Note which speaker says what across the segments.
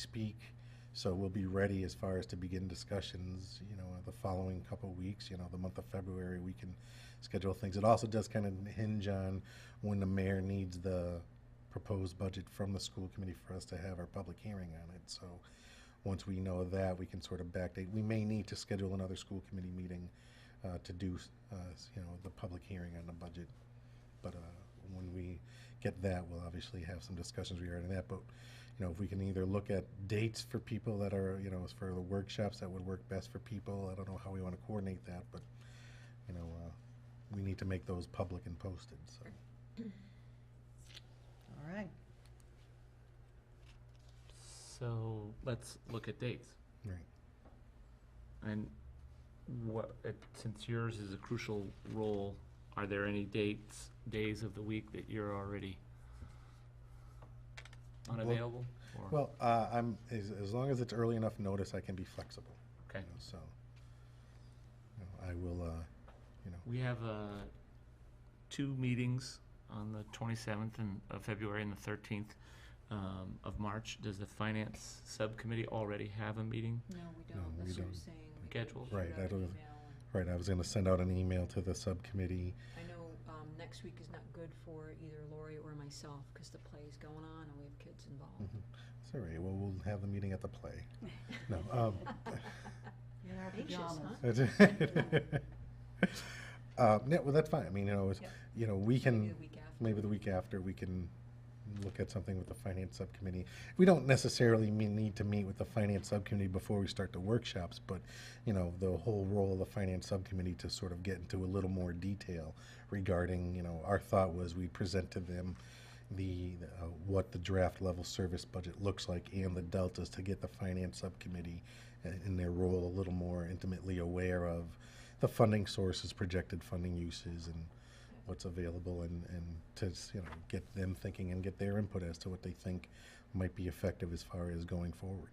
Speaker 1: speak. So we'll be ready as far as to begin discussions, you know, the following couple weeks, you know, the month of February, we can schedule things. It also does kind of hinge on when the mayor needs the proposed budget from the school committee for us to have our public hearing on it. So once we know that, we can sort of backdate. We may need to schedule another school committee meeting uh, to do, uh, you know, the public hearing on the budget. But uh, when we get that, we'll obviously have some discussions regarding that. But, you know, if we can either look at dates for people that are, you know, as for the workshops that would work best for people. I don't know how we want to coordinate that, but, you know, uh, we need to make those public and posted, so.
Speaker 2: All right.
Speaker 3: So let's look at dates.
Speaker 1: Right.
Speaker 3: And what, it- since yours is a crucial role, are there any dates, days of the week that you're already
Speaker 1: Well-
Speaker 3: unavailable? or-
Speaker 1: Well, uh, I'm, as, as long as it's early enough notice, I can be flexible. you
Speaker 3: Okay.
Speaker 1: know, So, you know, I will, uh, you know,
Speaker 3: We have uh, two meetings on the 27th and- of February and the 13th um, of March. Does the Finance Subcommittee already have a meeting?
Speaker 2: No, we
Speaker 1: No,
Speaker 2: don't.
Speaker 1: we
Speaker 2: That's what
Speaker 1: don't.
Speaker 2: I'm saying. We
Speaker 3: Scheduled.
Speaker 2: shoot
Speaker 1: Right,
Speaker 2: out
Speaker 1: I
Speaker 2: an
Speaker 1: don't-
Speaker 2: email and-
Speaker 1: right, I was gonna send out an email to the subcommittee.
Speaker 2: I know, um, next week is not good for either Lori or myself, cause the play's going on and we have kids involved.
Speaker 1: Mm. It's all right, well, we'll have the meeting at the play. No, um,
Speaker 4: In our
Speaker 2: Anxious,
Speaker 4: pajamas.
Speaker 2: huh?
Speaker 1: That's it. Uh, yeah, well, that's fine. I mean, you know, it's,
Speaker 2: Yeah.
Speaker 1: you know, we
Speaker 2: Maybe
Speaker 1: can,
Speaker 2: the week after.
Speaker 1: maybe the week after, we can look at something with the finance subcommittee. We don't necessarily me- need to meet with the finance subcommittee before we start the workshops, but, you know, the whole role of the finance subcommittee to sort of get into a little more detail regarding, you know, our thought was we present to them the, uh, what the draft level service budget looks like and the deltas to get the finance subcommittee uh, in their role a little more intimately aware of the funding sources, projected funding uses, and what's available, and, and to, s- you know, get them thinking and get their input as to what they think might be effective as far as going forward.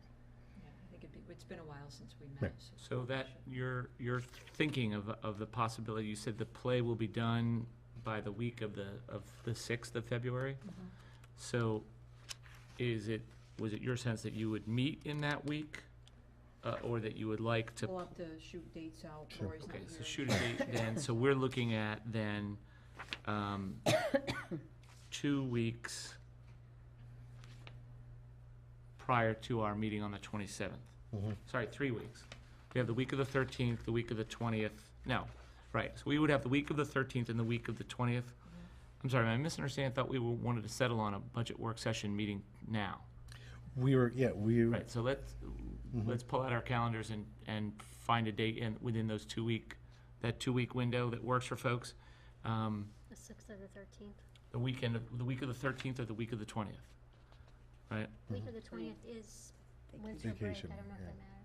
Speaker 2: Yeah, I think it'd be, it's been a while since we
Speaker 1: Right.
Speaker 2: met. so-
Speaker 3: So that, you're, you're thinking of, of the possibility, you said the play will be done by the week of the, of the 6th of February?
Speaker 2: Mhm.
Speaker 3: So is it, was it your sense that you would meet in that week? uh, Or that you would like to?
Speaker 2: We'll have to shoot dates out.
Speaker 1: Sure.
Speaker 2: Lori's not
Speaker 3: Okay,
Speaker 2: here.
Speaker 3: so shoot a date then, so we're looking at then, um, two weeks prior to our meeting on the twenty-seventh.
Speaker 1: Mhm.
Speaker 3: Sorry, three weeks. We have the week of the thirteenth, the week of the twentieth, no, right, so we would have the week of the thirteenth and the week of the twentieth. I'm sorry, am I misunderstanding? I thought we were- wanted to settle on a budget work session meeting now.
Speaker 1: We were, yeah, we,
Speaker 3: Right, so let's, let's pull out our calendars and, and find a date in, within those two week, that two week window that works for folks. Um,
Speaker 5: The sixth of the thirteenth.
Speaker 3: The weekend, of- the week of the thirteenth or the week of the twentieth, right?
Speaker 5: Week
Speaker 1: Mhm.
Speaker 5: of the twentieth is winter break, I
Speaker 1: Vacation,
Speaker 5: don't know if
Speaker 1: yeah.
Speaker 5: that matters.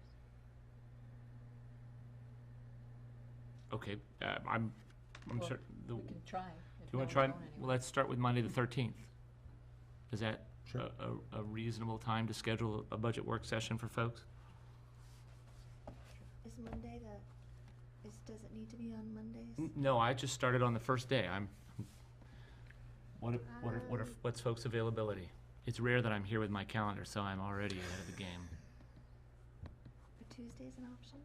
Speaker 3: Okay, uh, I'm, I'm
Speaker 2: Well,
Speaker 3: certain, do
Speaker 2: We can try. if
Speaker 3: you wanna
Speaker 2: no
Speaker 3: try,
Speaker 2: one's
Speaker 3: well,
Speaker 2: going anywhere.
Speaker 3: let's start with Monday the thirteenth. Is that a,
Speaker 1: sure,
Speaker 3: a- a reasonable time to schedule a budget work session for folks?
Speaker 6: Is Monday the, is, does it need to be on Mondays?
Speaker 3: N- No, I just started on the first day, I'm, what, if- what, if- what, if-
Speaker 5: Um.
Speaker 3: what's folks' availability? It's rare that I'm here with my calendar, so I'm already ahead of the game.
Speaker 6: Are Tuesdays an option?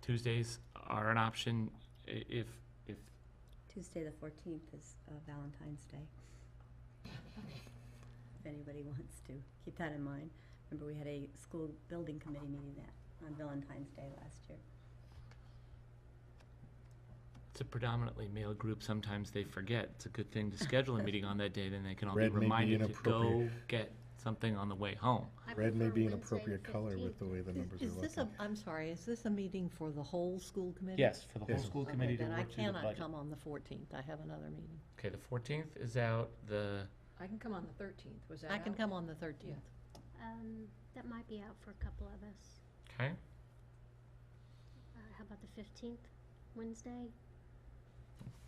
Speaker 3: Tuesdays are an option i- if, if,
Speaker 4: Tuesday, the fourteenth is uh, Valentine's Day. If anybody wants to, keep that in mind. Remember, we had a school building committee meeting that, on Valentine's Day last year.
Speaker 3: it's a predominantly male group, sometimes they forget. It's a good thing to schedule a meeting on that day, then they can all be
Speaker 1: Red may be
Speaker 3: reminded to go
Speaker 1: inappropriate.
Speaker 3: get something on the way home.
Speaker 5: I
Speaker 1: red may
Speaker 5: prefer
Speaker 1: be an
Speaker 5: Wednesday
Speaker 1: appropriate color with
Speaker 5: 15th.
Speaker 1: the way the numbers are
Speaker 4: Is this a,
Speaker 1: looking.
Speaker 4: I'm sorry, is this a meeting for the whole school committee?
Speaker 3: Yes, for the whole
Speaker 1: Yes.
Speaker 3: school
Speaker 4: Okay,
Speaker 3: committee to
Speaker 4: Then I
Speaker 3: work through the
Speaker 4: cannot
Speaker 3: budget.
Speaker 4: come on the fourteenth, I have another meeting.
Speaker 3: Okay, the fourteenth is out, the,
Speaker 2: I can come on the thirteenth, was that
Speaker 4: I can
Speaker 2: out?
Speaker 4: come on the thirteenth.
Speaker 5: Um, that might be out for a couple of us.
Speaker 3: okay,
Speaker 5: Uh, how about the fifteenth, Wednesday?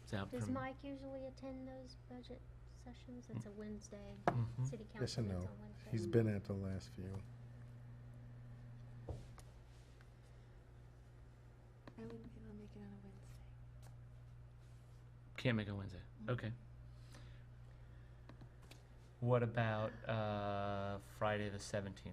Speaker 3: it's out
Speaker 5: Does
Speaker 3: from,
Speaker 5: Mike usually attend those budget sessions? It's a Wednesday,
Speaker 3: Mhm.
Speaker 5: city council
Speaker 1: Hmm? Yes and
Speaker 5: meets
Speaker 1: no.
Speaker 5: on Wednesday.
Speaker 1: He's been at the last few.
Speaker 6: I wouldn't be able to make it on a Wednesday.
Speaker 3: can't make a Wednesday, okay. What about, uh, Friday the seventeenth?